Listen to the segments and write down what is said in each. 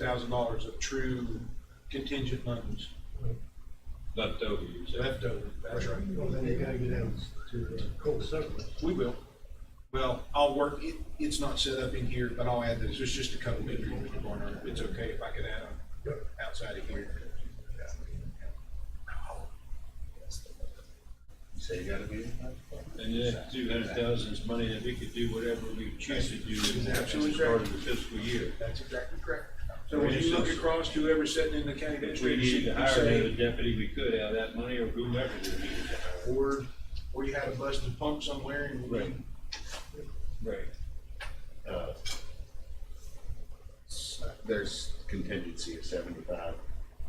thousand dollars of true contingent monies left over, you said. left over. That's right. Well, then they gotta get down to the cold surplus. We will. Well, I'll work, it, it's not set up in here, but I'll add this, it's just a couple of people, Mr. Barnard, it's okay if I could add them Yep. outside of here. So you gotta be. And that two hundred thousand is money that we could do whatever we choose to do at the Absolutely start correct. of the fiscal year. That's exactly correct. So when you look across to whoever's sitting in the county If we administrator needed seat, to you hire another say, deputy, we could out of that money or whomever we needed to hire. or, or you had a busted pump somewhere and we Right. Right. uh, There's contingency of seventy-five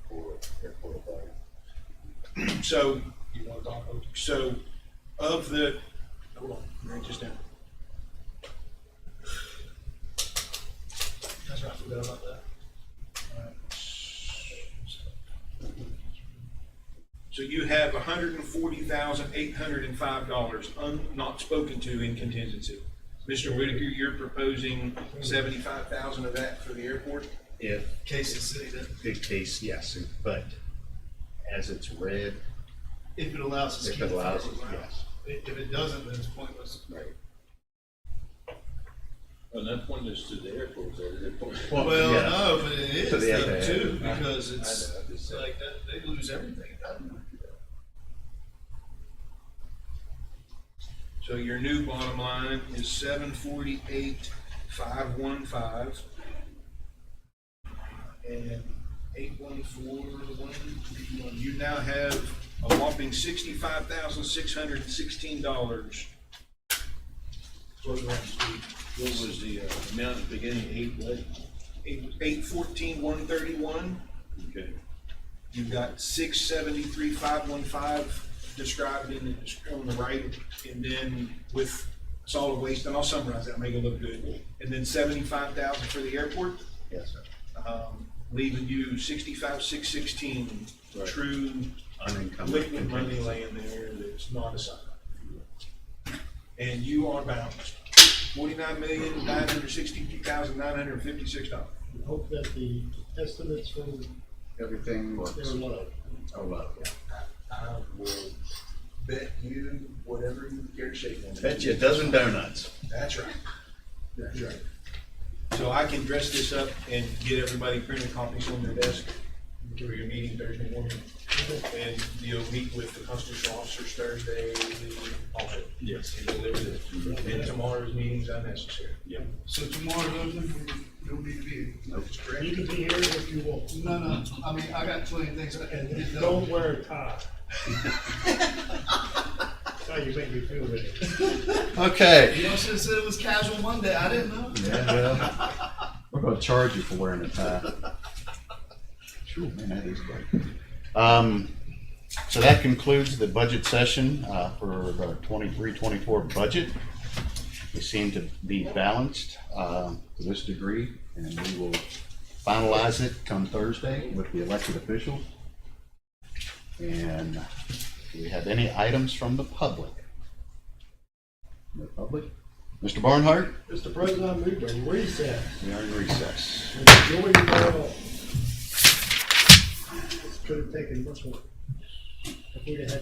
for airport authority. So, you want to talk, about- so of the, hold on, write this down. That's right, I forgot about that. Alright. So you have hundred and forty thousand, eight hundred and five dollars un, not spoken to in contingency. Mr. Whitaker, you're proposing seventy-five thousand of that for the airport? If Kansas City, that big case, yes, but as it's read, if it allows us to if keep it the allows, fireworks around. yes, If if it doesn't, then it's pointless. right. Well, not point us to the airport, there, they're pointing. Well, yeah. no, but it is To the though, FAA. too, because I it's know, I just said- like that, they lose everything at that point. So your new bottom line is seven forty-eight, five one five. And eight one four, one, you now have a whopping sixty-five thousand, six hundred and sixteen dollars. What was the uh, amount at the beginning, eight, what? Eight, eight fourteen, one thirty-one, Okay. you've got six seventy-three, five one five described in the, on the right, and then with solid waste, and I'll summarize that, make it look good. And then seventy-five thousand for the airport. Yes, sir. um, leaving you sixty-five, six sixteen, Right. true Unencumbered liquid money contingency. laying there that's not assigned. And you are balanced, forty-nine million, nine hundred sixty-two thousand, nine hundred fifty-six dollars. We Hope that the estimates from Everything works. their love. Oh, love, yeah. I will bet you whatever you care to shake on Bet you a dozen donuts. That's right. That's right. So I can dress this up and get everybody printed copies on their desk for your meeting Thursday morning. And you'll meet with the constitutional officers Thursday, also. Yes. And deliver this. And tomorrow's meeting's unnecessary. Yep. So tomorrow, Logan, you don't need to be You can be here if you want, here. No, no, I mean, I got twenty things I had to get done. don't wear a tie. That's how you make me feel better. Okay. You know, should have said it was casual Monday, I didn't know. Yeah, well, we're gonna charge you for wearing a tie. Sure, man, that is great. Um, so that concludes the budget session, uh, for the twenty-three, twenty-four budget. We seem to be balanced, uh, to this degree, and we will finalize it come Thursday with the elected officials. And do we have any items from the public? No public? Mr. Barnhart? Mr. President, I move to recess We are in recess. and enjoy the ball. This could have taken much more. If we'd have had